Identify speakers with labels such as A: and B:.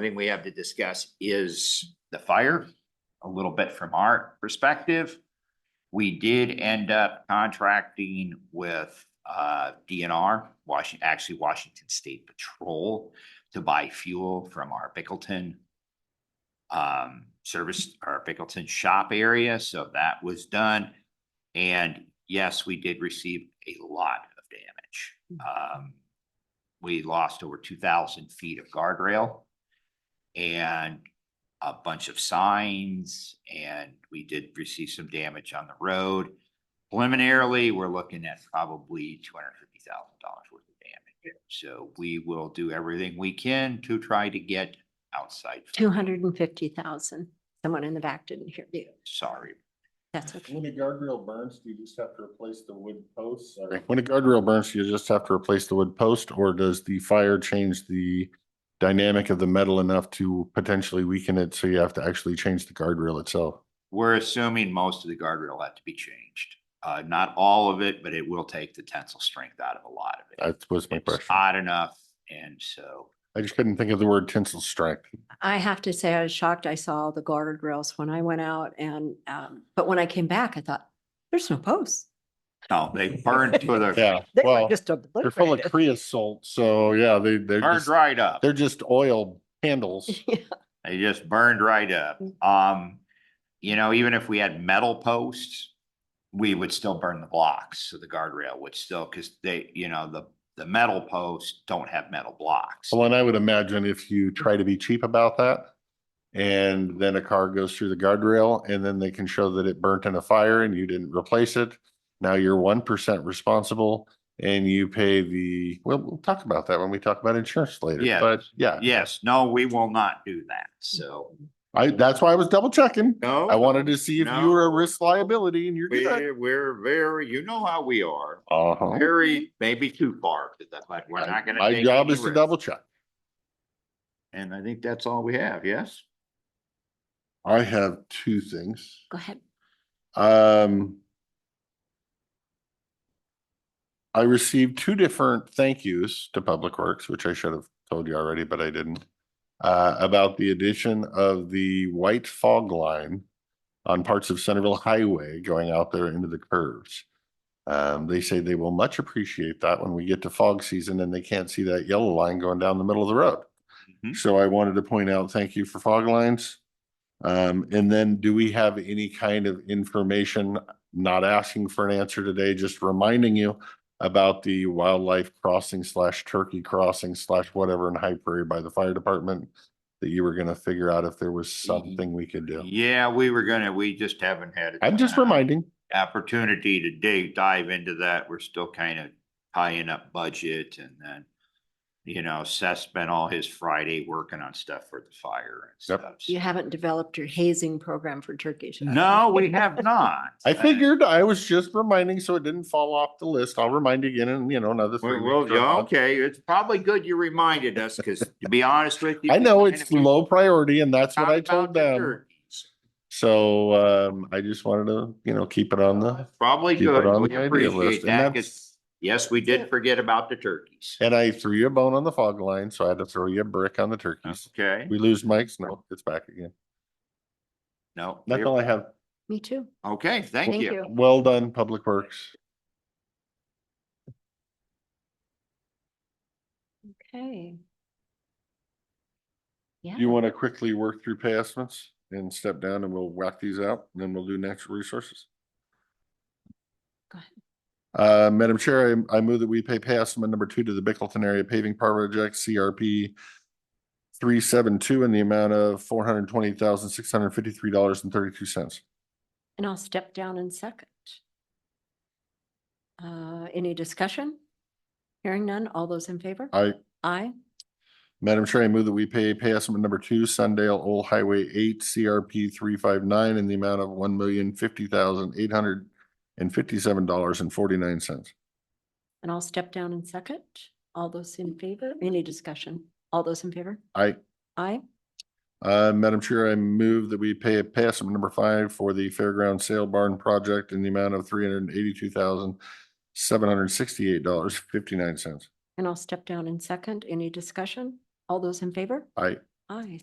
A: thing we have to discuss is the fire, a little bit from our perspective. We did end up contracting with uh DNR, Washington, actually Washington State Patrol to buy fuel from our Bickleton um service, our Bickleton shop area, so that was done. And yes, we did receive a lot of damage. Um, we lost over two thousand feet of guardrail and a bunch of signs, and we did receive some damage on the road. Preliminarily, we're looking at probably two hundred fifty thousand dollars worth of damage. So we will do everything we can to try to get outside.
B: Two hundred and fifty thousand. Someone in the back didn't hear you.
A: Sorry.
B: That's okay.
C: When a guardrail burns, do you just have to replace the wood posts? When a guardrail burns, do you just have to replace the wood post, or does the fire change the dynamic of the metal enough to potentially weaken it, so you have to actually change the guardrail itself?
A: We're assuming most of the guardrail had to be changed. Uh, not all of it, but it will take the tensile strength out of a lot of it.
C: That was my
A: It's
C: question.
A: hot enough, and so
C: I just couldn't think of the word tensile strength.
B: I have to say, I was shocked. I saw the guardrails when I went out and, um, but when I came back, I thought, there's no posts.
A: No, they burned to the,
C: Yeah,
B: They were
C: well,
B: just
C: they're full of
B: obliterated.
C: creosote, so yeah, they, they're
A: burned
C: just,
A: right up.
C: they're just oil handles.
A: They just burned right up. Um, you know, even if we had metal posts, we would still burn the blocks. So the guardrail would still, because they, you know, the, the metal posts don't have metal blocks.
C: Well, and I would imagine if you try to be cheap about that and then a car goes through the guardrail and then they can show that it burnt in a fire and you didn't replace it. Now you're one percent responsible and you pay the, well, we'll talk about that when we talk about insurance later.
A: Yeah.
C: But yeah,
A: Yes, no, we will not do that. So.
C: I, that's why I was double checking.
A: No.
C: I wanted to see if
A: No.
C: you were a risk liability and you're good.
A: We're, we're very, you know how we are,
C: Uh-huh.
A: very, maybe too far, to that, but we're not gonna.
C: My
A: take
C: job
A: any
C: is to
A: risk.
C: double check.
A: And I think that's all we have, yes?
C: I have two things.
B: Go ahead.
C: Um. I received two different thank yous to Public Works, which I should have told you already, but I didn't. Uh, about the addition of the white fog line on parts of Centerville Highway going out there into the curves. Um, they say they will much appreciate that when we get to fog season and they can't see that yellow line going down the middle of the road.
A: Mhm.
C: So I wanted to point out, thank you for fog lines. Um, and then do we have any kind of information, not asking for an answer today, just reminding you about the wildlife crossing slash turkey crossing slash whatever in High Prairie by the fire department that you were gonna figure out if there was something we could do?
A: Yeah, we were gonna, we just haven't had. a
C: I'm just
A: time-
C: reminding.
A: Opportunity to dig, dive into that. We're still kind of tying up budget and then. You know, Seth spent all his Friday working on stuff for the fire and
C: Yep.
A: stuff.
B: You haven't developed your hazing program for turkeys. have you?
A: No, we have not.
C: I figured I was just reminding so it didn't fall off the list. I'll remind you again and you know, another
A: Well,
C: three.
A: well,
C: weeks or a
A: yeah,
C: month.
A: okay, it's probably good you reminded us, because to be honest with you.
C: I
A: we
C: know
A: kinda
C: it's
A: been
C: low priority and that's what
A: talking
C: I told
A: about the
C: them.
A: turkeys.
C: So um, I just wanted to, you know, keep it on the,
A: Probably
C: keep it on
A: good,
C: the
A: we
C: idea
A: appreciate
C: list.
A: that,
C: And
A: 'cause
C: that's,
A: yes, we did forget about the turkeys.
C: and I threw you a bone on the fog line, so I had to throw you a brick on the turkeys.
A: Okay,
C: We lose Mike's, no, it's back again.
A: no,
C: That's all I have.
B: Me too.
A: okay, thank
B: Thank
A: you.
B: you.
C: Well done, Public Works.
B: Okay. Yeah.
C: You want to quickly work through pay estimates and step down and we'll whack these out and then we'll do natural resources?
B: Go ahead.
C: Uh, Madam Chair, I, I move that we pay pay estimate number two to the Bickleton Area Paving Project, CRP three seven two in the amount of four hundred twenty thousand, six hundred fifty-three dollars and thirty-two cents.
B: And I'll step down in second. Uh, any discussion? Hearing none. All those in favor?
C: I,
B: Aye.
C: Madam Chair, I move that we pay pay estimate number two, Sundale Old Highway eight, CRP three five nine in the amount of one million, fifty thousand, eight hundred and fifty-seven dollars and forty-nine cents.
B: And I'll step down in second. All those in favor? Any discussion? All those in favor?
C: I,
B: Aye.
C: Uh, Madam Chair, I move that we pay a pass on number five for the Fairground Sale Barn Project in the amount of three hundred and eighty-two thousand, seven hundred and sixty-eight dollars, fifty-nine cents.
B: And I'll step down in second. Any discussion? All those in favor?
C: Aye.
B: I